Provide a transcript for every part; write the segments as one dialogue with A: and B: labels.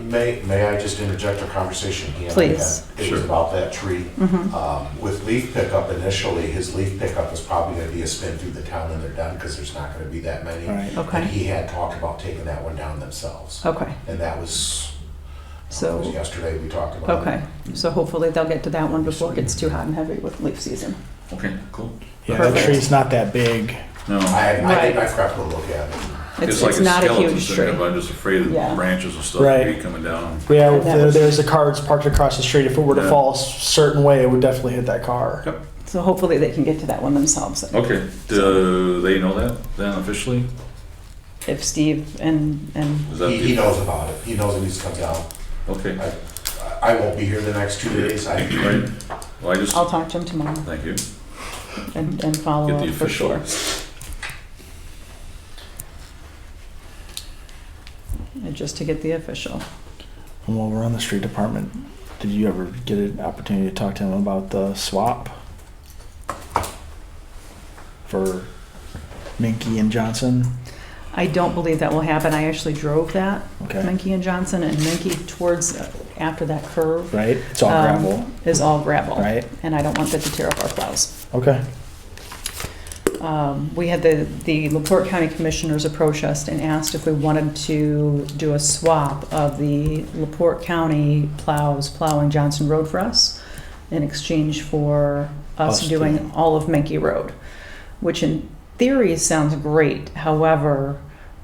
A: May, may I just interject a conversation he and I had?
B: Please. Mm-hmm.
A: It was
C: Sure.
A: about that tree. Um, With leaf pickup initially, his leaf pickup is probably gonna be a spin through the town and they're done, because there's not gonna be that many.
D: Right.
B: Okay.
A: And he had talked about taking that one down themselves.
B: Okay,
A: And that was, that was
B: so,
A: yesterday we talked about. it.
B: okay, so hopefully they'll get to that one before it gets too hot and heavy with leaf season.
C: Okay, cool.
D: Yeah, that
B: Perfect.
D: tree's not that big.
A: I,
C: No,
A: I think I
B: Right.
A: forgot to look at it.
B: It's,
C: it's like
B: it's
C: a
B: not a
C: skeleton
B: huge
C: thing,
B: tree.
C: but I'm just afraid of
B: Yeah.
C: branches and stuff
D: Right.
C: could be coming down.
D: Yeah, if
B: That
D: there,
B: was-
D: there's a car that's parked across the street. If it were to
C: Yeah.
D: fall a certain way, it would definitely hit that car.
C: Yep.
B: So hopefully they can get to that one themselves.
C: Okay, do they know that then officially?
B: If Steve and, and,
C: Is that
A: He, he
C: the,
A: knows about it. He knows it needs to come down.
C: okay,
A: I, I won't be here the next two days. I,
C: right? Well, I just,
B: I'll talk to him tomorrow
C: thank you.
B: and, and follow
C: Get the
B: up for
C: official.
B: sure. And just to get the official.
D: And while we're on the street department, did you ever get an opportunity to talk to him about the swap for Minky and Johnson?
B: I don't believe that will happen. I actually drove that,
D: Okay,
B: Menke and Johnson, and Menke towards, uh, after that curve
D: right? It's all
B: Um,
D: gravel,
B: is all gravel.
D: right?
B: And I don't want that to tear up our plows.
D: Okay,
B: Um, We had the, the LaPorte County Commissioners approach us and asked if we wanted to do a swap of the LaPorte County plows plowing Johnson Road for us in exchange for us
D: Us
B: doing
D: doing-
B: all of Menke Road, which in theory sounds great. However,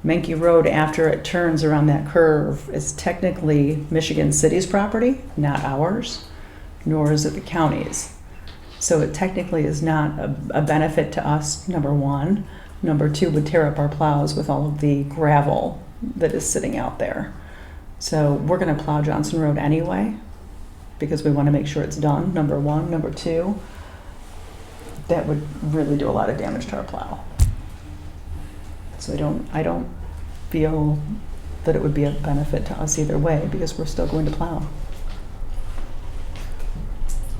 B: Menke Road, after it turns around that curve, is technically Michigan City's property, not ours, nor is it the county's. So it technically is not a, a benefit to us, number one. Number two would tear up our plows with all of the gravel that is sitting out there. So we're gonna plow Johnson Road anyway, because we wanna make sure it's done, number one. Number two, that would really do a lot of damage to our plow. So I don't, I don't feel that it would be a benefit to us either way, because we're still going to plow.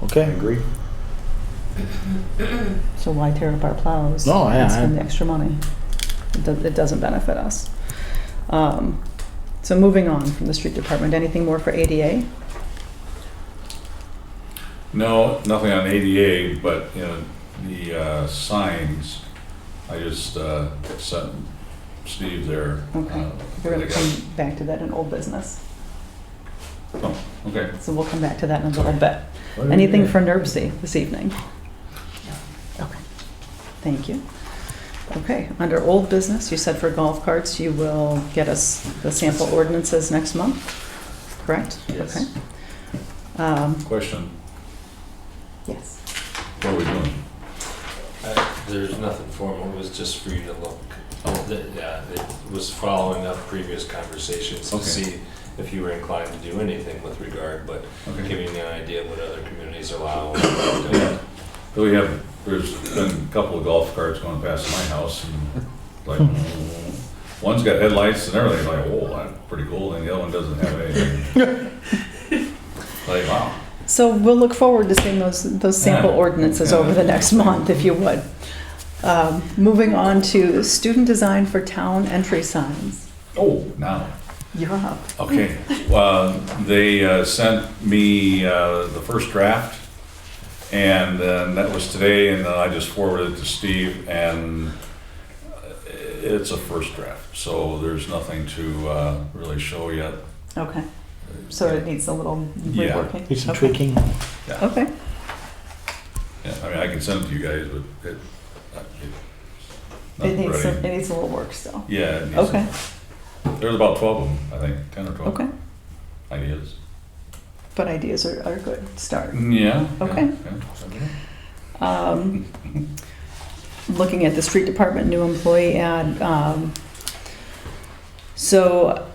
D: okay.
A: agree.
B: So why tear up our plows?
D: No, yeah,
B: And
D: I-
B: spend the extra money. It do- It doesn't benefit us. Um, So moving on from the street department, anything more for ADA?
C: No, nothing on ADA, but, you know, the, uh, signs, I just, uh, sent Steve there.
B: Okay.
C: uh,
B: We're gonna
C: they got-
B: come back to that in old business.
C: Okay.
B: So we'll come back to that in a little bit. Anything for NERC this evening? Okay, thank you. Okay, under old business, you said for golf carts, you will get us the sample ordinances next month, correct?
C: Yes.
B: Okay. Um,
C: Question,
B: Yes.
C: what are we doing?
E: Uh, There's nothing formal, it was just for you to look. Oh, th- Yeah, it was following up previous conversations to
C: Okay.
E: see if you were inclined to do anything with regard, but
C: Okay.
E: giving you an idea of what other communities allow. and what they don't.
C: We have, there's been a couple of golf carts going past my house and like, one's got headlights and everything, like, whoa, that's pretty cool, and the other one doesn't have anything. Like, wow.
B: So we'll look forward to seeing those, those sample
C: Yeah.
B: ordinances
C: Yeah.
B: over the next month, if you would. Um, Moving on to student design for town entry signs.
C: Oh, now.
B: You're up.
C: Okay, well, they uh, sent me uh, the first draft, and then that was today, and then I just forwarded it to Steve, and uh, it's a first draft, so there's nothing to uh, really show yet.
B: Okay, so it needs a little
C: Yeah.
B: reworking.
D: Do some
B: Okay.
D: tweaking.
B: Okay,
C: Yeah, I mean, I can send it to you guys, but it, uh, it- not
B: it needs, some-
C: ready.
B: it needs a little work still.
C: Yeah, it needs some-
B: Okay,
C: there's about twelve of them, I think, ten or twelve
B: okay,
C: ideas.
B: but ideas are, are a good start.
C: Yeah. yeah,
B: Okay.
C: yeah.
B: Um, Looking at the street department new employee ad, um, so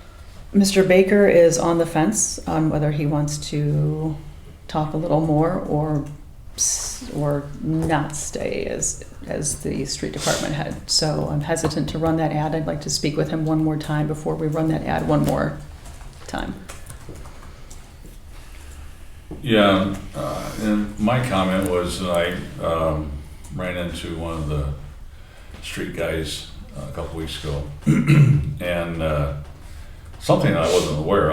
B: Mr. Baker is on the fence on whether he wants to talk a little more or, s- or not stay as, as the street department head. So I'm hesitant to run that ad. I'd like to speak with him one more time before we run that ad one more time.
C: Yeah, uh, and my comment was that I um, ran into one of the street guys a couple weeks ago, and uh, something I wasn't aware of.